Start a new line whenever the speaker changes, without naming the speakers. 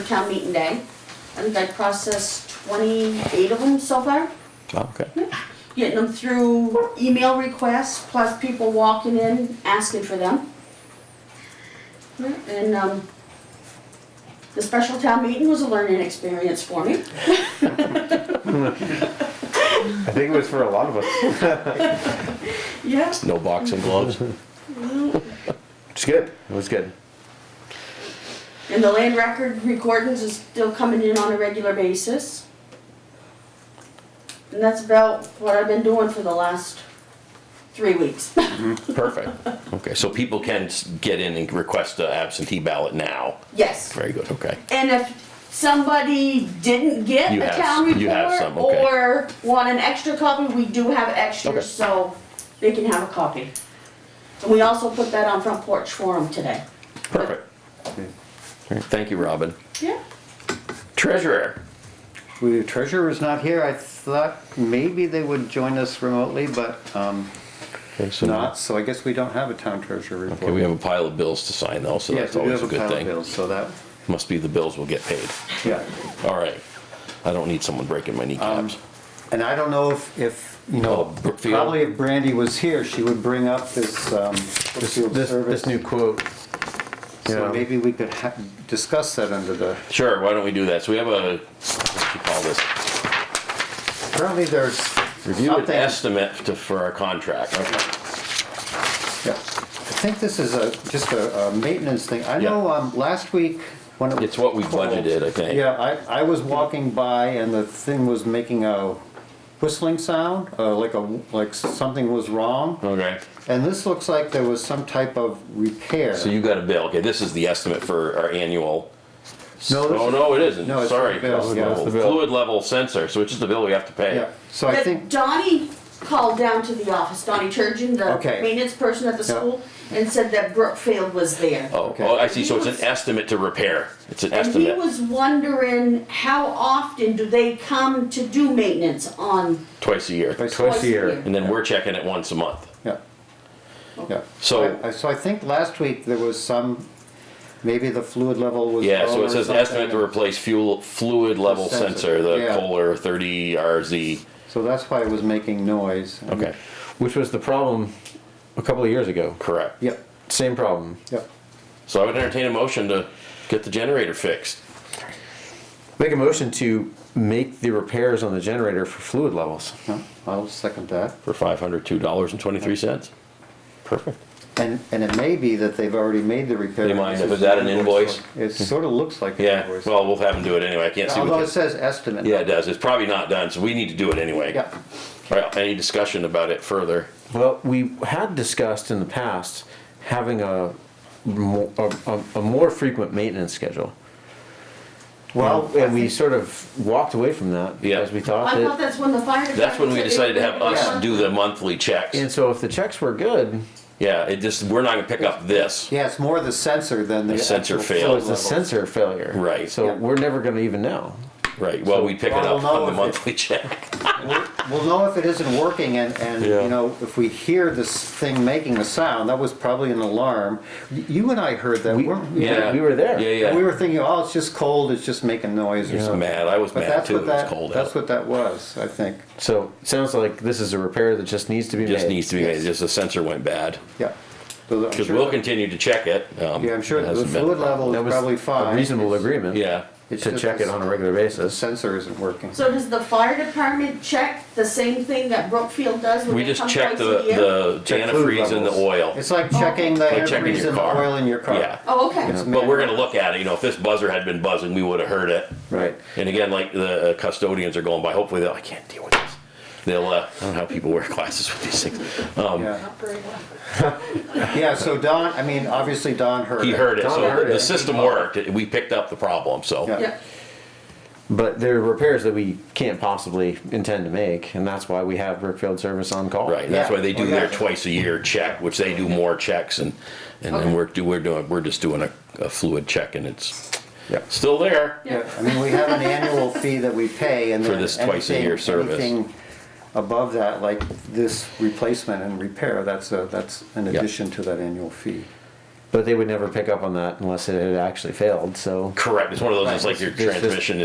town meeting day. I think I processed twenty-eight of them so far,
Oh, Okay.
getting them through email requests, plus people walking in, asking for them. And, um, the special town meeting was a learning experience for me.
I think it was for a lot of us.
Yeah.
No boxing gloves.
It's good. It was good.
And the land record recordings is still coming in on a regular basis. And that's about what I've been doing for the last three weeks.
Perfect. Okay, so people can s- get in and request a absentee ballot now.
Yes.
Very good, okay.
And if somebody didn't get
You
a
have-
town
you have some,
report
okay.
or want an extra copy, we do have
Okay.
extras, so they can have a copy. And we also put that on Front Porch Forum today.
Perfect. All right, Thank you, Robin.
Yeah.
Treasurer,
The treasurer is not here. I thought maybe they would join us remotely, but um, not, so I guess we don't have a town treasurer report.
okay, we have a pile of bills to sign though, so
Yes,
that's
we do
always
have
a good
a pile of
thing.
bills, so that,
Must be the bills will get paid.
yeah.
All right. I don't need someone breaking my
Um,
kneecaps.
And I don't know if, if, you
Oh,
know,
Brookfield.
probably if Brandy was here, she would bring up this um,
This,
Brookfield
this, this
service.
new quote.
So maybe we could ha- discuss that under the,
Sure, why don't we do that? So we have a, what do you call this?
apparently there's
Review an
something.
estimate to, for our contract.
Yeah. I think this is a, just a a maintenance thing. I
Yeah.
know um, last week when it was
It's what we
cold,
budgeted, I think.
Yeah, I, I was walking by and the thing was making a whistling sound, uh, like a, like something was wrong.
Okay.
And this looks like there was some type of repair.
So you got a bill, okay, this is the estimate for our annual.
No, this
Oh,
is-
no, it isn't,
Oh, No, it's
sorry.
the bill,
That's
yeah,
the
it's the
bill.
Fluid level sensor, so it's just the bill we have to pay.
Yeah, so I
But
think,
Donnie called down to the office, Donnie Turgeon, the
Okay.
maintenance person at the
Yeah.
school, and said that Brookfield was there.
Oh,
Okay.
oh, I see, so it's an estimate to repair, it's an
And he
estimate,
was wondering how often do they come to do maintenance on
twice a year.
Twice-
twice a
year.
year?
And then we're checking it once a month.
yeah, yeah.
So-
I- I- So I think last week there was some, maybe the fluid level was.
Yeah,
low
so
or
it says an
something.
estimate to replace fuel, fluid level
The sensor,
sensor, the
yeah.
Kohler thirty RZ.
So that's why it was making noise.
Okay,
Which was the problem a couple of years ago.
correct.
Yep,
Same problem.
yep.
So I would entertain a motion to get the generator fixed.
Make a motion to make the repairs on the generator for fluid levels.
No, I'll second that.
for five hundred two dollars and twenty-three cents. Perfect.
And, and it may be that they've already made the repair.
Do you mind if it's at an invoice?
It sort of looks like. an
Yeah,
invoice.
well, we'll have him do it anyway, I can't see
Although it
what, the-
says estimate.
yeah, it does, it's probably not done, so we need to do it anyway.
Yeah,
All right, any discussion about it further?
Well, we had discussed in the past having a mo- a, a, a more frequent maintenance schedule.
well,
and we sort of walked away from that because
Yeah.
we thought
I thought
that.
that's when the fire department.
That's when we
said they
decided to
were
have
gonna
us do the monthly checks.
And so if the checks were good,
Yeah, it just, we're not gonna pick up this.
yeah, it's more the sensor than the.
The sensor
actual
failed.
it
flow
was a
level.
sensor failure.
Right.
So
Yeah.
we're never going to even know.
Right, well, we pick it
Well,
up on
no,
the
if it-
monthly check.
We'll- We'll know if it isn't working and, and,
Yeah.
you know, if we hear this thing making a sound, that was probably an alarm. Y- You and I heard that,
We-
weren't we?
Yeah,
we were there.
Yeah,
We
yeah.
were thinking, oh, it's just cold, it's just making noise or
I was
something.
Mad, I was
But
mad
that's
too, it
what
was
that,
cold
that's
out.
what that was, I think,
So it sounds like this is a repair that just needs to be
Just
made.
needs to be made, just the sensor went bad.
yeah. So I'm
Cause
sure
we'll
that-
continue to check it. um,
Yeah, I'm sure
it
the
hasn't been-
fluid level
That
is
was
probably
a
fine.
reasonable
It's-
agreement.
Yeah,
it's
To
just
check it on a regular
The
basis.
sensor isn't working.
So does the fire department check the same thing that Brookfield does when
we
they
just
come
check
twice a
the,
year?
the
Check fluid
antifreeze and the
levels.
oil.
It's like checking the
Like checking
antifreeze
your
and the
car.
oil in your car.
Yeah.
Oh, okay.
It's
But we're gonna look at it, you know, if this buzzer had been buzzing, we would have heard it.
Right.
And again, like the uh, custodians are going by, hopefully they'll, I can't deal with this. They'll, uh, I don't know how people wear glasses with these things. Um,
Yeah, yeah, so Don, I mean, obviously Don heard it.
he heard it,
Don
so
heard
the
it.
system worked, It- we picked up the problem, so.
Yeah.
Yeah,
But there are repairs that we can't possibly intend to make, and that's why we have Brookfield Service on call.
Right, that's
Yeah.
why they do
Well, yeah.
their twice a year check, which they do more checks and, and
Okay.
then we're, do- we're doing, we're just doing a, a fluid check and it's
Yep.
still there.
Yeah, I mean, we have an annual fee that we pay and
For
then
this twice a year
anything-
service.
anything Above that, like this replacement and repair, that's a, that's an
Yeah.
addition to that annual fee.
But they would never pick up on that unless it had actually failed, so.
Correct. It's one of those.
Right.
It's like your
It's just-
transmission